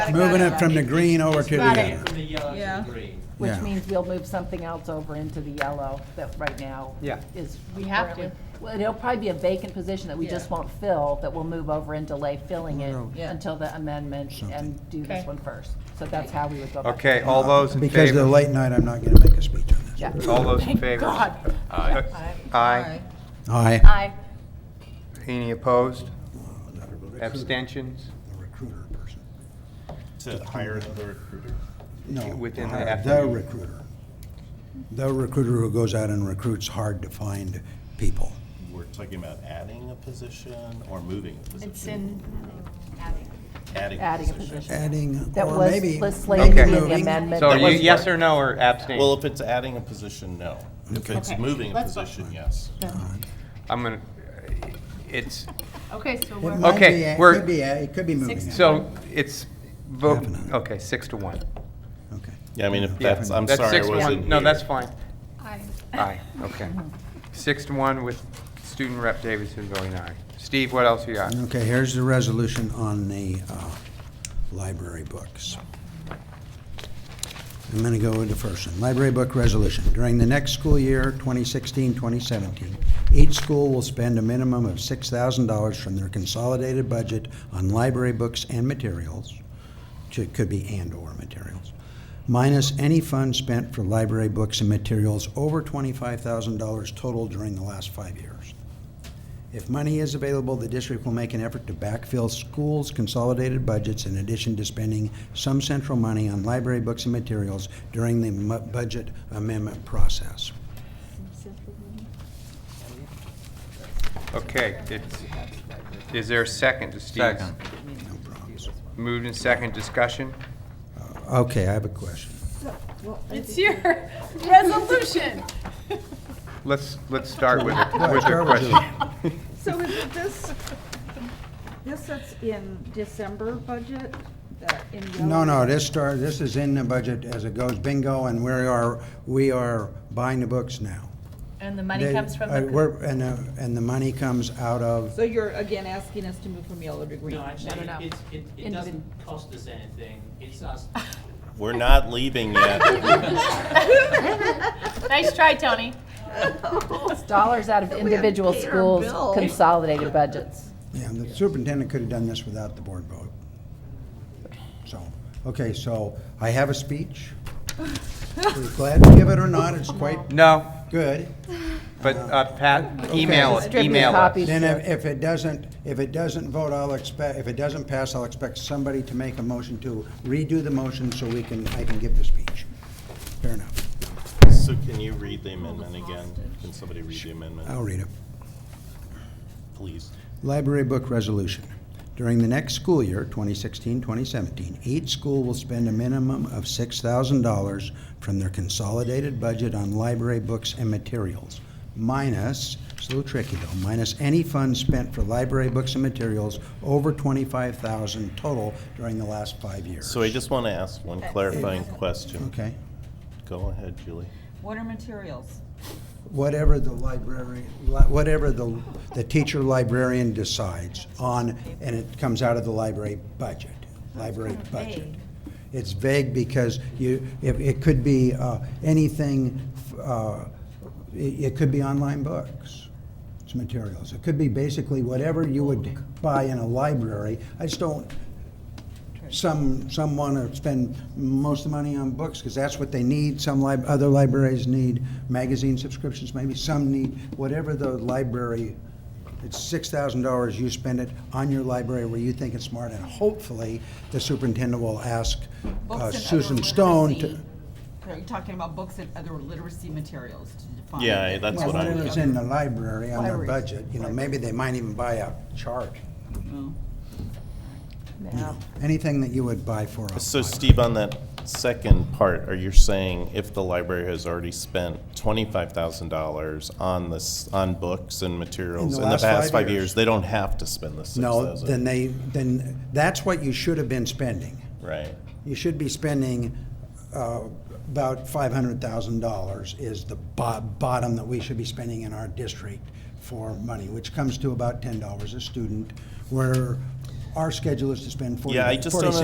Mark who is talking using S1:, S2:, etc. S1: I got
S2: Moving it from the green over to the
S1: Got it.
S2: other.
S3: From the yellow
S1: Yeah.
S3: to the green.
S4: Which
S2: Yeah.
S4: means we'll move something else over into the yellow that right now
S3: Yeah.
S4: is.
S1: We have to.
S4: currently- Well, it'll probably be a vacant position that we just
S1: Yeah.
S4: won't fill, that we'll move over and delay filling it
S2: Road.
S1: Yeah.
S4: until the amendment and do
S1: Okay.
S4: this one first. So that's how we would go about
S5: Okay, all those in
S2: Because of the
S5: favor?
S2: late night, I'm not gonna make a speech on this.
S4: it.
S5: All those in
S4: Thank
S5: favor?
S4: God.
S5: Aye.
S1: Aye.
S5: Aye.
S2: Aye.
S4: Aye.
S5: Any opposed? Abstentions?
S2: Recruiter person.
S6: To hire another recruiter?
S2: No.
S5: Within the
S2: hire The
S5: afternoon.
S2: recruiter. The recruiter who goes out and recruits hard-to-find people.
S6: We're talking about adding a position or moving a position?
S1: It's in,
S6: Adding a
S4: Adding a
S6: position.
S4: position.
S2: Adding,
S4: That
S2: or
S4: was
S2: maybe.
S4: was slated to be in the
S2: moving.
S4: amendment.
S5: So
S4: that
S5: you,
S4: was-
S5: yes or no or abstain?
S6: Well, if it's adding a position, no. If it's
S1: Okay.
S6: moving a
S1: Let's not-
S6: position, yes.
S5: I'm gonna, it's,
S1: okay, so
S2: It
S1: we're,
S2: might
S5: Okay,
S2: be- it
S5: we're-
S2: could be, it could be moving. it.
S5: so it's, vote,
S2: Definitely.
S5: okay, six to one.
S2: Okay.
S6: Yeah, I mean, if
S5: Yeah,
S6: that's, I'm
S5: that's
S6: sorry, I
S5: six to
S6: wasn't
S5: one. No,
S6: here.
S5: that's fine.
S1: aye.
S5: Aye, okay. Six to one with student rep Davidson voting aye. Steve, what else you got?
S2: Okay, here's the resolution on the uh, library books. I'm going to go with the first one. Library book resolution. During the next school year, 2016, 2017, each school will spend a minimum of $6,000 from their consolidated budget on library books and materials, which it could be and/or materials, minus any funds spent for library books and materials over $25,000 total during the last five years. If money is available, the district will make an effort to backfill schools' consolidated budgets in addition to spending some central money on library books and materials during the mu- budget amendment process.
S5: Okay, it's, is there a second to Steve's?
S7: Second.
S2: No problems.
S5: Moved in second, discussion?
S2: Okay, I have a question.
S1: It's your resolution.
S5: Let's, let's start with a,
S2: Well,
S5: with a
S2: start with
S5: question.
S8: So is it this, this that's in December budget, that in yellow?
S2: No, no, this start, this is in the budget as it goes bingo, and we are, we are buying the books now.
S1: And the money
S2: They-
S1: comes from
S2: uh,
S1: the,
S2: we're- And, uh, and the money comes out of,
S8: So you're again asking us to move from yellow to green?
S3: No, actually,
S4: no, no.
S3: it, it, it
S4: Individ-
S3: doesn't cost us anything. It's us
S6: We're not leaving yet.
S1: nice try, Tony.
S4: It's Dollars out of individual
S8: pay our
S4: schools'
S8: bill.
S4: consolidated budgets.
S2: yeah, the superintendent could have done this without the board vote. So, okay, so I have a speech. We're glad to give it or not, it's quite
S5: No,
S2: good.
S5: but uh, Pat, email, it,
S4: Distribute
S5: email
S4: copies.
S5: us.
S2: Then if if it doesn't, if it doesn't vote, I'll expect, if it doesn't pass, I'll expect somebody to make a motion to redo the motion so we can, I can give the speech. Fair enough.
S6: So can you read the amendment again? Can somebody read the amendment,
S2: I'll read it.
S6: please?
S2: Library Book Resolution. During the next school year, 2016-2017, each school will spend a minimum of $6,000 from their consolidated budget on library books and materials, minus, it's a little tricky though, minus any funds spent for library books and materials over $25,000 total during the last five years.
S6: So I just want to ask one clarifying question.
S2: Okay.
S6: Go ahead, Julie.
S8: What are materials?
S2: Uh, Whatever the library, li- whatever the, the teacher librarian decides on, and it comes out of the library budget, library budget. It's vague because you, it, it could be, uh, anything, uh, it, it could be online books. It's materials. It could be basically whatever you would buy in a library. I just don't, some, some want to spend most of the money on books because that's what they need. Some lib, other libraries need magazine subscriptions, maybe some need, whatever the library, it's six thousand dollars, you spend it on your library where you think it's smart. And hopefully, the superintendent will ask
S8: Books
S2: uh,
S8: and other
S2: Susan Stone to,
S8: literacy- Are you talking about books and other literacy materials to define?
S6: Yeah, I- that's
S2: well,
S6: what I'm.
S2: whatever's in the library on their
S8: Libraries.
S2: budget, you know, maybe they might even buy a chart.
S8: Oh.
S2: you know, Anything that you would buy for a
S6: So
S2: library.
S6: Steve, on that second part, are you saying if the library has already spent twenty-five thousand dollars on this, on books and materials in the
S2: last
S6: past
S2: five
S6: five
S2: years.
S6: years, they don't have to spend the six
S2: No,
S6: thousand?
S2: then they, then, that's what you should have been spending.
S6: Right,
S2: You should be spending uh, about five hundred thousand dollars is the bo- bottom that we should be spending in our district for money, which comes to about ten dollars a student, where our schedule is to spend forty,
S6: Yeah, I just don't
S2: forty-six